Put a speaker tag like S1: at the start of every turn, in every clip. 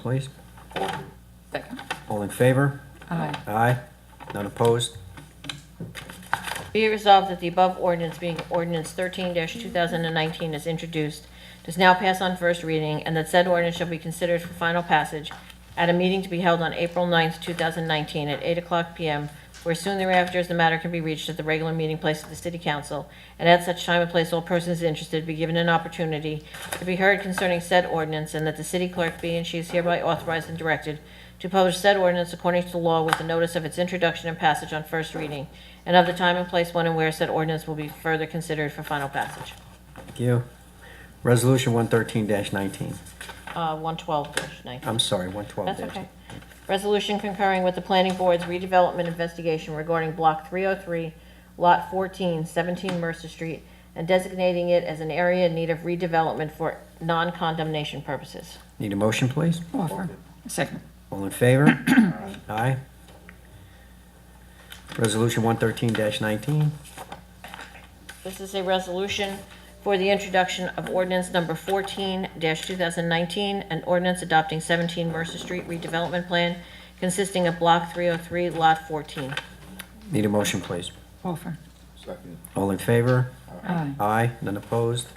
S1: please?
S2: Second.
S1: All in favor?
S2: Aye.
S1: Aye. None opposed?
S3: Be it resolved that the above ordinance being ordinance thirteen two thousand and nineteen is introduced, does now pass on first reading, and that said ordinance shall be considered for final passage at a meeting to be held on April 9th, two thousand and nineteen, at eight o'clock PM, where soon thereafter as the matter can be reached at the regular meeting place of the city council, and at such time and place all persons interested be given an opportunity to be heard concerning said ordinance, and that the city clerk be and she is hereby authorized and directed to publish said ordinance according to the law with a notice of its introduction and passage on first reading, and of the time and place when and where said ordinance will be further considered for final passage.
S1: Thank you. Resolution 113-19.
S3: Uh, 112-19.
S1: I'm sorry, 112-19.
S3: That's okay. Resolution concurring with the planning board's redevelopment investigation regarding Block 303, Lot 14, 17 Mercer Street, and designating it as an area in need of redevelopment for non-condemnation purposes.
S1: Need a motion, please?
S2: Offer. Second.
S1: All in favor? Aye. Resolution 113-19.
S3: This is a resolution for the introduction of ordinance number 14-2019, an ordinance adopting 17 Mercer Street redevelopment plan consisting of Block 303, Lot 14.
S1: Need a motion, please?
S2: Offer.
S4: Second.
S1: All in favor?
S2: Aye.
S1: Aye. None opposed?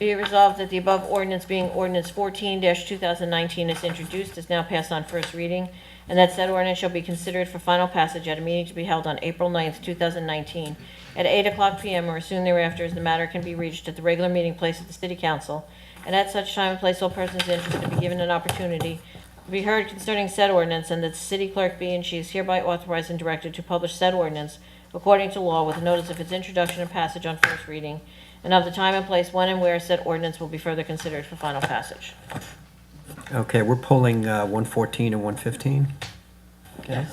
S3: Be it resolved that the above ordinance being ordinance 14-2019 is introduced, is now passed on first reading, and that said ordinance shall be considered for final passage at a meeting to be held on April 9th, 2019, at 8 o'clock PM or soon thereafter, as the matter can be reached at the regular meeting place of the city council, and at such time and place all persons interested be given an opportunity to be heard concerning said ordinance, and that the city clerk be and she is hereby authorized and directed to publish said ordinance according to law with notice of its introduction and passage on first reading, and of the time and place when and where said ordinance will be further considered for final passage.
S1: Okay, we're pulling uh, 114 and 115. Okay.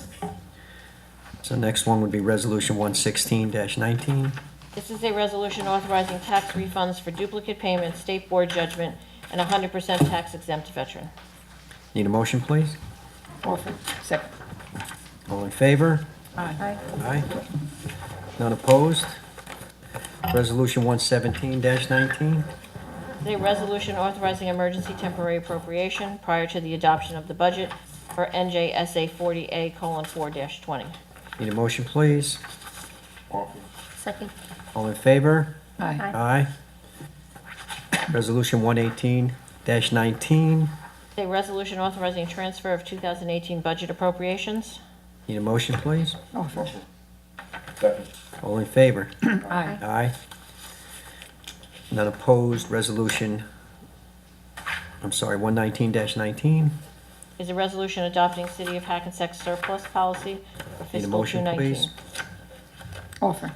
S1: So next one would be Resolution 116-19.
S3: This is a resolution authorizing tax refunds for duplicate payments, state board judgment, and 100% tax exempt veteran.
S1: Need a motion, please?
S2: Offer. Second.
S1: All in favor?
S2: Aye.
S1: Aye. None opposed? Resolution 117-19.
S3: A resolution authorizing emergency temporary appropriation prior to the adoption of the budget for NJSA 40A:4-20.
S1: Need a motion, please?
S4: Offer.
S3: Second.
S1: All in favor?
S2: Aye.
S1: Aye. Resolution 118-19.
S3: A resolution authorizing transfer of 2018 budget appropriations.
S1: Need a motion, please?
S2: Offer.
S4: Second.
S1: All in favor?
S2: Aye.
S1: Aye. None opposed, resolution, I'm sorry, 119-19.
S3: is a resolution adopting City of Hackensack surplus policy for
S1: Need a
S3: fiscal
S1: motion, please?
S3: 2019.
S2: Offer.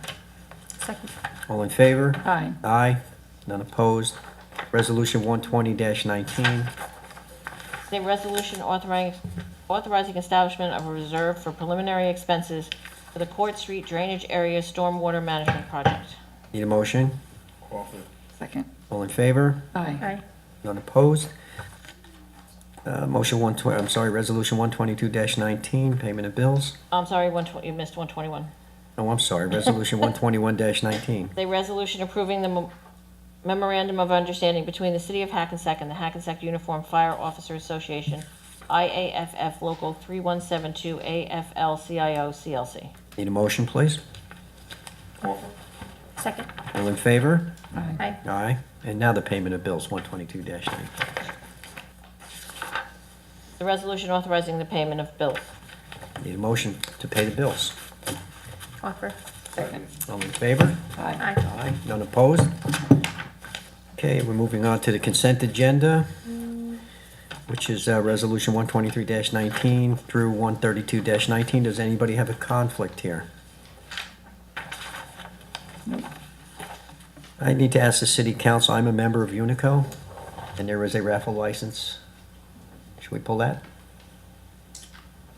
S1: All in favor?
S2: Aye.
S1: Aye. None opposed. Resolution 120-19.
S3: Is a resolution authorizing, authorizing establishment of a reserve for preliminary expenses for the Court Street Drainage Area Stormwater Management Project.
S1: Need a motion?
S4: Offer.
S2: Second.
S1: All in favor?
S2: Aye.
S1: None opposed. Uh, Motion 120, I'm sorry, Resolution 122-19, payment of bills.
S3: I'm sorry, 120, you missed 121.
S1: Oh, I'm sorry, Resolution 121-19.
S3: Is a resolution approving the mem- memorandum of understanding between the City of Hackensack and the Hackensack Uniform Fire Officer Association, IAFF Local 3172 AFL-CIO CLC.
S1: Need a motion, please?
S4: Offer.
S3: Second.
S1: All in favor?
S2: Aye.
S1: Aye. And now the payment of bills, 122-19.
S3: The resolution authorizing the payment of bills.
S1: Need a motion to pay the bills.
S3: Offer.
S2: Second.
S1: All in favor?
S2: Aye.
S1: Aye. None opposed? Okay, we're moving on to the consent agenda, which is uh, Resolution 123-19 through 132-19. Does anybody have a conflict here? I need to ask the city council, I'm a member of Unico, and there is a raffle license. Should we pull that?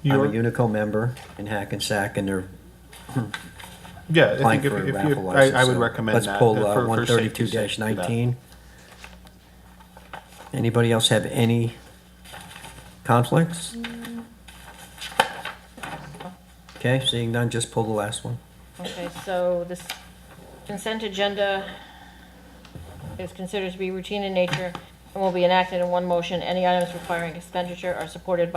S1: I'm a
S5: You're-
S1: Unico member in Hackensack, and they're
S5: Yeah, I
S1: applying
S5: think if,
S1: for a
S5: if
S1: raffle
S5: you, I,
S1: license.
S5: I would
S1: so
S5: recommend that.
S1: Let's pull uh,
S5: that for- for
S1: thirty-two
S5: safety's sake for that.
S1: nineteen. Anybody else have any conflicts? Okay, seeing none, just pull the last one.
S3: Okay, so this consent agenda is considered to be routine in nature and will be enacted in one motion. Any items requiring expenditure are supported by.